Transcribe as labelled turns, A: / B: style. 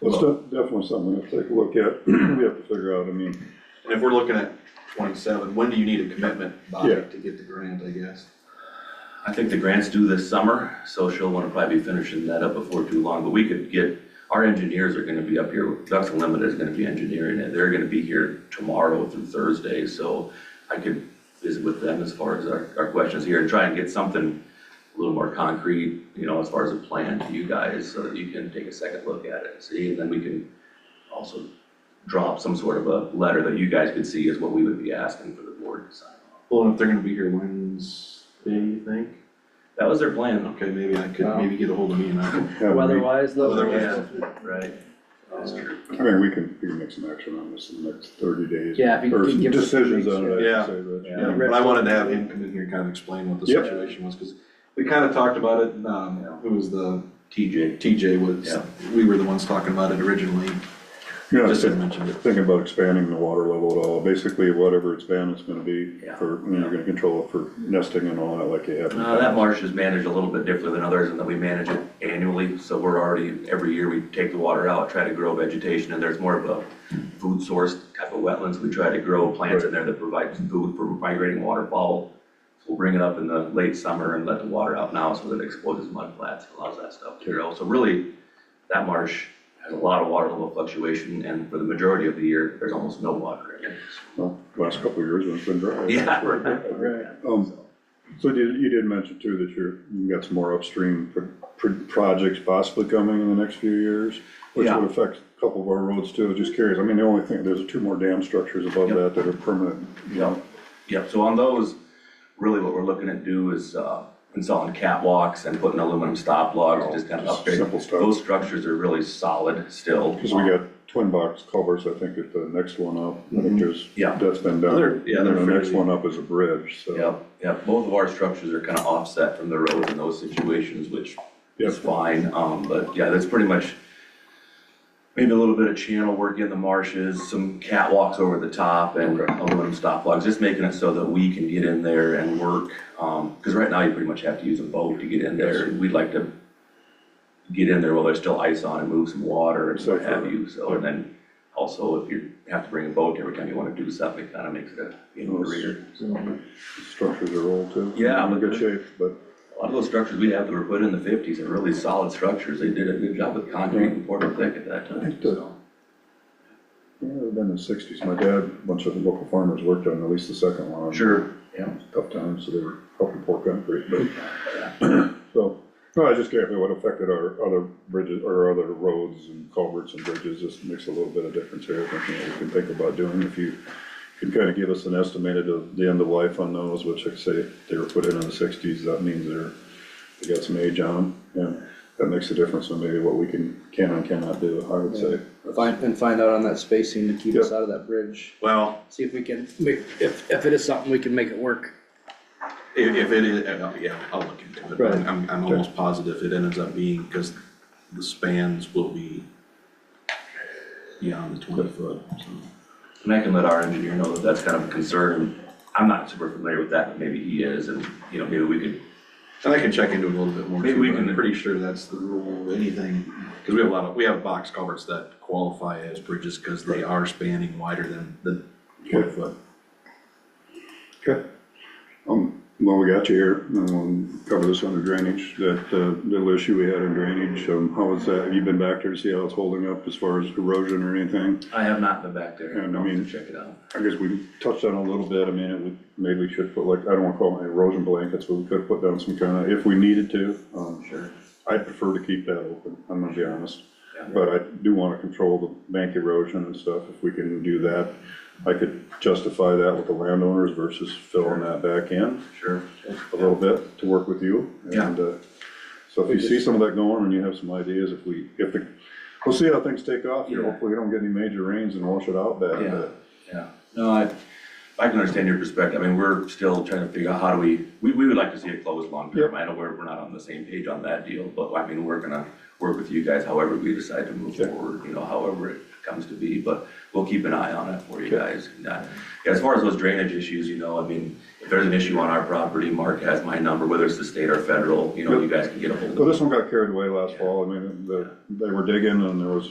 A: It's de- definitely something we have to take a look at, we have to figure out, I mean,
B: And if we're looking at twenty-seven, when do you need a commitment by
A: Yeah.
B: to get the grant, I guess?
C: I think the grant's due this summer, so she'll wanna probably be finishing that up before too long, but we could get, our engineers are gonna be up here, Ducks Unlimited is gonna be engineering it, they're gonna be here tomorrow through Thursday, so I could visit with them as far as our, our questions here and try and get something a little more concrete, you know, as far as a plan to you guys, so that you can take a second look at it and see, and then we can also drop some sort of a letter that you guys could see is what we would be asking for the board to sign.
B: Well, and if they're gonna be here Wednesday, you think?
C: That was their plan,
B: Okay, maybe I
A: Um,
B: could, maybe get a hold of me and I can.
A: have a meet-
D: Weather-wise, though.
B: Weather-wise.
C: right? That's true.
A: I mean, we can, we can make some action on this in the next thirty days.
D: Yeah, if you
A: Or
D: could
A: some
D: give us a few
A: decisions
D: weeks,
A: on it,
B: yeah.
A: I'd say, Rich.
C: Yeah.
B: Yeah, but I wanted to have him come in here and kind of explain what the
A: Yep.
B: situation was, cause we kind of talked about it, um, who was the,
C: TJ.
B: TJ was,
C: Yeah.
B: we were the ones talking about it originally,
A: You know,
B: just had
A: think-
B: mentioned it.
A: thinking about expanding the water level at all, basically whatever it's been, it's gonna be
C: Yeah.
A: for, you know, you're gonna control it for nesting and all that like you have. in the
C: Uh, that
A: past.
C: marsh is managed a little bit differently than others in that we manage it annually, so we're already, every year we take the water out, try to grow vegetation, and there's more of a food source type of wetlands, we try to grow plants in there that provide food for migrating waterfowl. So We'll bring it up in the late summer and let the water out now so that it exposes mud flats, allows that stuff to grow, so really, that marsh has a lot of water level fluctuation, and for the majority of the year, there's almost no water in it.
A: Well, Last couple of years, when it's been dry.
C: Yeah,
D: Right.
A: Um, So you, you did mention too that you're, you got some more upstream pro- pro- projects possibly coming in the next few years, which
C: Yeah.
A: would affect a couple of our roads too, just curious. I mean, the only thing, there's two more dam structures above
C: Yep.
A: that that are permanent, you know.
C: Yep, yep, so on those, really what we're looking at do is uh, installing catwalks and putting aluminum stop logs, just kind of
A: Just
C: upgrade.
A: simple stuff.
C: Those structures are really solid still.
A: Because we got twin box culverts, I think, at the next one up. I think there's,
C: Mm-hmm. Yeah.
A: that's been done.
C: They're- yeah,
A: And then
C: they're
A: the next
C: fairly-
A: one up is a bridge, so.
C: Yep, yep, both of our structures are kind of offset from the road in those situations, which
A: Yep.
C: is fine, um, but yeah, that's pretty much maybe a little bit of channel work in the marshes, some catwalks over the top and aluminum stop logs, just making it so that we can get in there and work. Um, cause right now you pretty much have to use a boat to get in there, we'd like to get in there while there's still ice on and move some water and what have you, so, and then also if you have to bring a boat every time you wanna do something, it kinda makes it a, you know, career.
A: Structures are old too.
C: Yeah,
A: In
C: but-
A: good shape, but
C: A lot of those structures we have that were put in the fifties are really solid structures. They did a good job with concrete and Portland thick at that time, so.
A: yeah, they've been in the sixties. My dad, a bunch of the local farmers worked on at least the second one.
C: Sure, yeah.
A: tough times, so they were helping poor country, but, so, no, I just care if it would affect our other bridges, or other roads and culverts and bridges, just makes a little bit of difference here, I think, you know, we can think about doing, if you can kind of give us an estimated of the end of life on those, which like I say, they were put in in the sixties, that means they're, they got some age on them, yeah, that makes a difference on maybe what we can, can and cannot do, I would say.
D: Find, and find out on that spacing to keep us
A: Yeah.
D: out of that bridge,
B: Well,
D: see if we can, make- if, if it is something, we can make it work.
B: if, if it is, uh, yeah, I'll look into it,
D: Right.
B: I'm- I'm, I'm almost positive it ends up being, cause the spans will be beyond the twenty foot, so.
C: And I can let our engineer know that that's kind of a concern. I'm not super familiar with that, but maybe he is, and, you know, maybe we could,
B: And I can check into it a little bit more
C: Maybe
B: too,
C: we
B: but I'm
C: can-
B: pretty sure that's the rule of anything, cause we have a lot of, we have box culverts that qualify as bridges, cause they are spanning wider than the twenty foot.
A: Okay. Um, well, we got you here, and we'll cover this under drainage, that, uh, little issue we had in drainage, um, how is that, have you been back there to see how it's holding up as far as erosion or anything?
C: I have not been back there,
A: Yeah,
C: I'm
A: I
C: going
A: mean-
C: to check it out.
A: I guess we touched on it a little bit, I mean, it would, maybe we should put like, I don't wanna call it erosion blankets, but we could put down some kind of, if we needed to, um,
C: Sure.
A: I prefer to keep that open, I'm gonna be honest.
C: Yeah.
A: But I do wanna control the bank erosion and stuff, if we can do that. I could justify that with the landowners versus filling that back in
C: Sure.
A: a little bit to work with you. And, uh, so if you see some of that going and you have some ideas, if we, if the, we'll see how things take off here.
C: Yeah.
A: Hopefully we don't get any major rains and wash it out bad,
C: Yeah,
A: but
C: yeah. No, I, I can understand your perspective. I mean, we're still trying to figure out how do we, we, we would like to see it closed long term. I know we're, we're not on the same page on that deal, but I mean, we're gonna work with you guys however we decide to move
A: Okay.
C: forward, you know, however it comes to be, but we'll keep an eye on it for you guys. And, uh, yeah, As far as those drainage issues, you know, I mean, if there's an issue on our property, Mark has my number, whether it's the state or federal, you know, you guys can get a hold of me.
A: So this one got carried away last fall. I mean, the, they were digging and there was